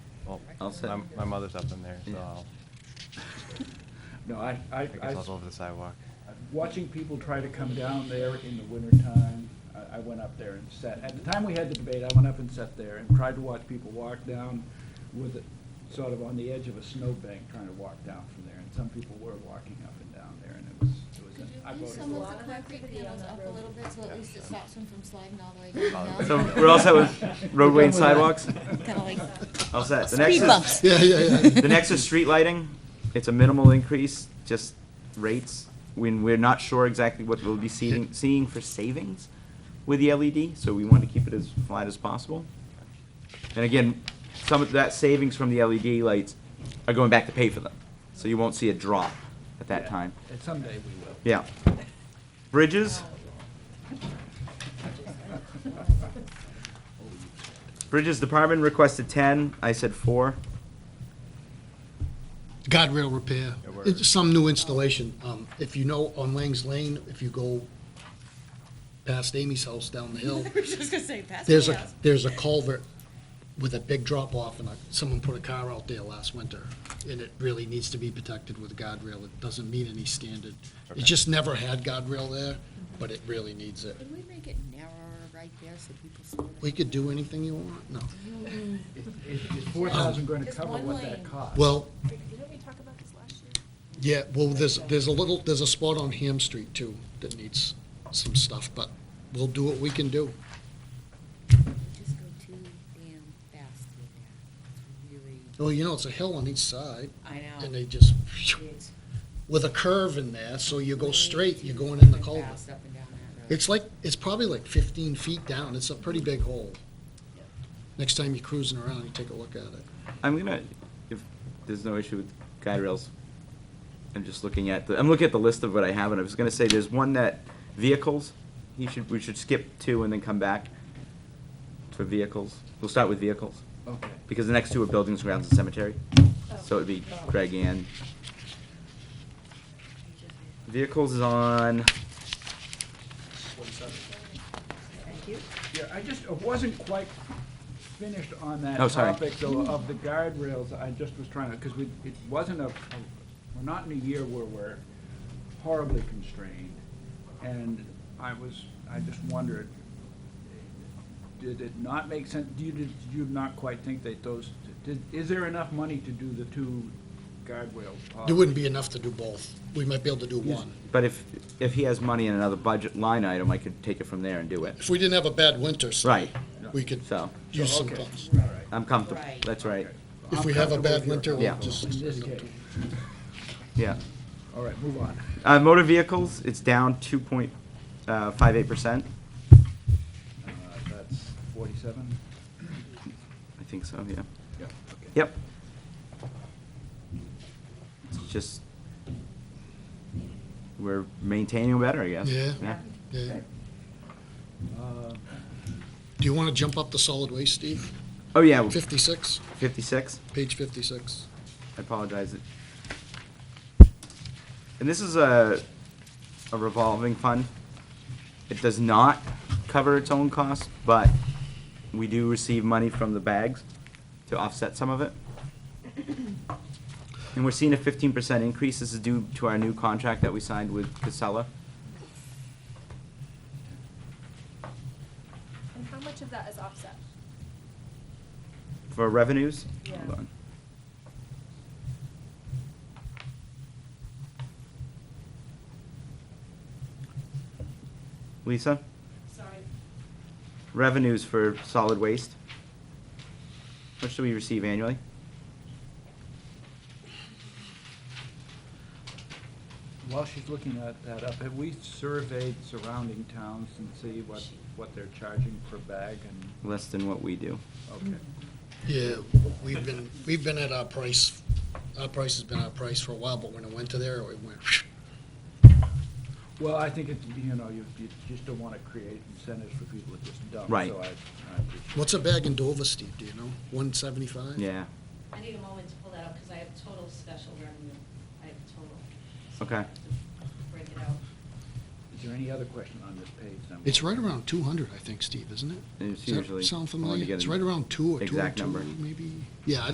I'll sit. My, my mother's up in there, so Yeah. I'll, No, I, I, I guess I, I'll go over the sidewalk. watching people try to come down there in the wintertime, I, I went up there and sat, at the time we had the debate, I went up and sat there and tried to watch people walk down with it, sort of on the edge of a snowbank, trying to walk down from there, and some people were walking up and down there, and it was, it Could was, I you move voted some for of it. the concrete panels up a little bit, so Yeah, at least it sure. stops them from sliding all the way down? the So, mountain? we're all set with roadway and We're done with sidewalks? that. Kinda like All set. The next Speed is- bumps. Yeah, yeah, yeah. The next is street lighting. It's a minimal increase, just rates. When we're not sure exactly what we'll be seeing, seeing for savings with the LED, so we want to keep it as flat as possible. And again, some of that savings from the LED lights are going back to pay for them, so you won't see a drop at that Yeah, time. And someday we will. Yeah. Bridges? Bridges Department requested ten, I said four. Guardrail repair, Yeah, word. It's some new installation. Um, If you know, on Lang's Lane, if you go past Amy's house down the hill, I was just gonna say, pass me there's a, out. there's a culvert with a big drop off and a- someone put a car out there last winter. And it really needs to be protected with guardrail. It doesn't meet any standard. Okay. It just never had guardrail there, but it really needs it. Could we make it narrower right there so people slow down? We could do anything you want, no. Is, is four thousand gonna Just cover one what that lane. costs? Well, Didn't we talk about this last year? Yeah, well, there's, there's a little, there's a spot on Ham Street too that needs some stuff, but we'll do what we can do. Just go too damn fast with that. It's really, Well, you know, it's a hill on each side I know. and they just, It's with a curve in there, so you go way straight, too you're going in the damn culvert. fast up and down that road. It's like, it's probably like fifteen feet down. It's a pretty big hole. Next time you're cruising around, you take a look at it. I'm gonna, if there's no issue with guide rails, I'm just looking at the, I'm looking at the list of what I have, and I was gonna say, there's one that vehicles, you should, we should skip two and then come back for vehicles. We'll start with vehicles, Okay. because the next two are buildings, grounds, and cemetery. So it'd be Greg and. Vehicles is on, Yeah, I just, I wasn't quite finished on that Oh, sorry. topic, though, of the guardrails, I just was trying to, because we, it wasn't a, we're not in a year where we're horribly constrained, and I was, I just wondered, did it not make sense, do you, did you not quite think that those, did, is there enough money to do the two guardrail? There wouldn't be enough to do both. We might be able to do Yes. one. but if, if he has money in another budget line item, I could take it from there and do it. If we didn't have a bad winter, so Right, we could so, use some Okay, pumps. all right. I'm comfortable, Right. that's right, Okay. If I'm we have a comfortable bad with your winter, we'll Yeah. just. In this case, yeah. all right, move on. Uh, motor vehicles, it's down two point five eight percent. Uh, That's forty-seven? I think so, yeah. Yeah. okay. Yep. It's just, we're maintaining better, I guess. Yeah. Yeah. Uh, Do you want to jump up to solid waste, Steve? Oh, yeah, 56, fifty-six, page 56. I apologize. And this is a, a revolving fund. It does not cover its own costs, but we do receive money from the bags to offset some of it. And we're seeing a fifteen percent increase. This is due to our new contract that we signed with Casella. And how much of that is offset? For revenues? Yeah. Hold on. Lisa, Sorry. revenues for solid waste? How much do we receive annually? While she's looking at that up, have we surveyed surrounding towns and see what, what they're charging per bag and, Less than what we do. okay. Yeah, we've been, we've been at our price, our price has been our price for a while, but when it went to there, it went, Well, I think it's, you know, you, you just don't want to create incentives for people to just dump. Right. So I, I appreciate what's a bag in Dover, Steve, do you know? 175? Yeah, I need a moment to pull that up because I have total special revenue. I have total. So Okay. I have to Break it out. Is there any other question on this page? I'm- It's right around 200, I think, Steve, isn't it? it's Does that usually. I Sound wanted to familiar? get It's an right around two or two oh Exact number. two, maybe? Yeah, I